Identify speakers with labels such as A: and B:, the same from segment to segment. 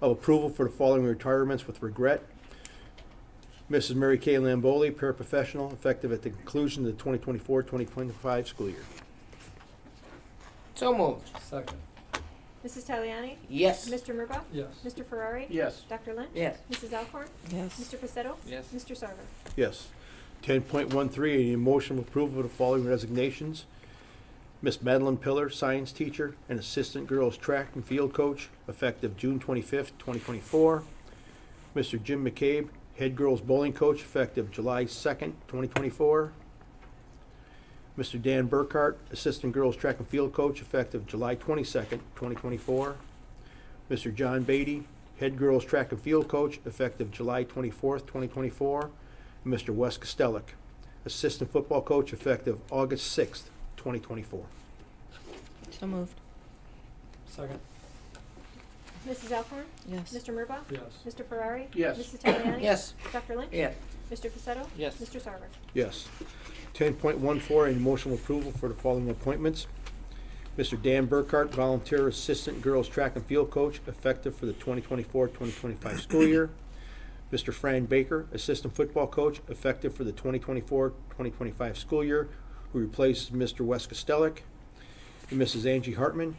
A: of approval for the following retirements with regret. Mrs. Mary Kay Lamboli, paraprofessional, effective at the conclusion of the 2024-2025 school year.
B: So moved.
C: Second.
D: Mrs. Taliani?
B: Yes.
D: Mr. Murbaugh?
C: Yes.
D: Mr. Ferrari?
A: Yes.
D: Dr. Lynch?
B: Yes.
D: Mrs. Alcorn?
E: yes,
D: Mr. Pacetto?
C: Yes.
D: Mr. Sarver?
A: Yes. Ten point one three, any motion of approval of the following resignations. Miss Madeline Pillar, science teacher and assistant girls track and field coach, effective June twenty-fifth, twenty twenty-four. Mr. Jim McCabe, head girls bowling coach, effective July second, twenty twenty-four. Mr. Dan Burkhart, assistant girls track and field coach, effective July twenty-second, twenty twenty-four. Mr. John Beatty, head girls track and field coach, effective July twenty-fourth, twenty twenty-four. Mr. Wes Costellic, assistant football coach, effective August sixth, twenty twenty-four.
E: so moved,
C: Second.
D: Mrs. Alcorn?
E: yes,
D: Mr. Murbaugh?
C: Yes.
D: Mr. Ferrari?
A: Yes.
D: Mrs. Taliani?
B: Yes.
D: Dr. Lynch?
B: Yes.
D: Mr. Pacetto?
C: Yes.
D: Mr. Sarver?
A: Yes. Ten point one four, any motion of approval for the following appointments. Mr. Dan Burkhart, volunteer assistant girls track and field coach, effective for the 2024-2025 school year. Mr. Fran Baker, assistant football coach, effective for the 2024-2025 school year, who replaces Mr. Wes Costellic. And Mrs. Angie Hartman,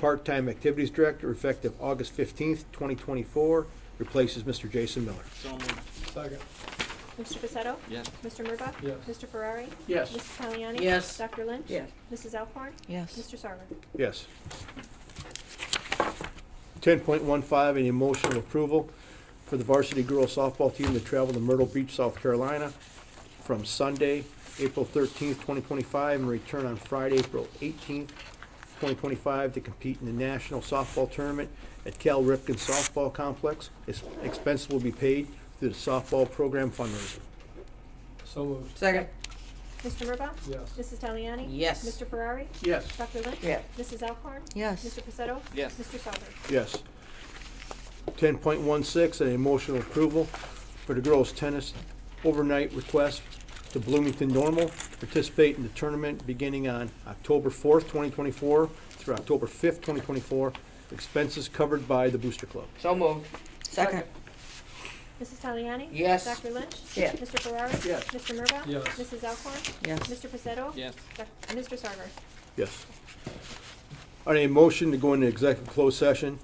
A: part-time activities director, effective August fifteenth, twenty twenty-four, replaces Mr. Jason Miller.
C: So moved. Second.
D: Mr. Pacetto?
C: Yes.
D: Mr. Murbaugh?
C: Yes.
D: Mr. Ferrari?
A: Yes.
D: Mrs. Taliani?
B: Yes.
D: Dr. Lynch?
B: Yes.
D: Mrs. Alcorn?
E: yes,
D: Mr. Sarver?
A: Yes. Ten point one five, any motion of approval for the varsity girls softball team to travel to Myrtle Beach, South Carolina from Sunday, April thirteenth, twenty twenty-five, and return on Friday, April eighteenth, twenty twenty-five, to compete in the national softball tournament at Cal Ripken Softball Complex. Its expense will be paid through the softball program fundraiser.
C: So moved.
B: Second.
D: Mr. Murbaugh?
C: Yes.
D: Mrs. Taliani?
B: Yes.
D: Mr. Ferrari?
A: Yes.
D: Dr. Lynch?
B: Yes.
D: Mrs. Alcorn?
E: yes,
D: Mr. Pacetto?
C: Yes.
D: Mr. Sarver?
A: Yes. Ten point one six, an emotional approval for the girls' tennis overnight request to Bloomington Normal, participate in the tournament beginning on October fourth, twenty twenty-four through October fifth, twenty twenty-four. Expenses covered by the Booster Club.
B: So moved.
E: second,
D: Mrs. Taliani?
B: Yes.
D: Dr. Lynch?
B: Yes.
D: Mr. Ferrari?
A: Yes.
D: Mr. Murbaugh?
C: Yes.
D: Mrs. Alcorn?
E: yes,
D: Mr. Pacetto?
C: Yes.
D: Doc- Mr. Sarver?
A: Yes. On a motion to go into executive closed session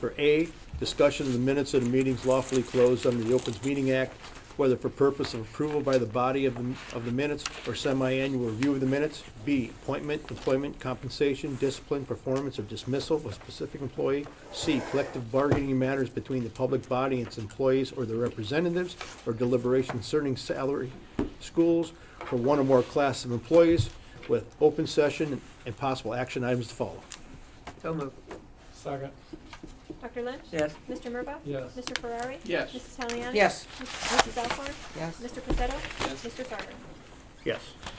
A: for A, discussion of the minutes of the meetings lawfully closed under the Opens Meeting Act, whether for purpose of approval by the body of the, of the minutes or semi-annual review of the minutes. B, appointment, employment, compensation, discipline, performance, or dismissal of a specific employee. C, collective bargaining matters between the public body and its employees or their representatives, or deliberation concerning salary, schools, for one or more class of employees with open session and possible action items to follow.
B: So moved.
C: Second.
D: Dr. Lynch?
B: Yes.
D: Mr. Murbaugh?
C: Yes.
D: Mr. Ferrari?
A: Yes.
D: Mrs. Taliani?
B: Yes.
D: Mrs. Alcorn?
E: yes.
D: Mr. Pacetto?
C: Yes.
D: Mr. Sarver?
A: Yes.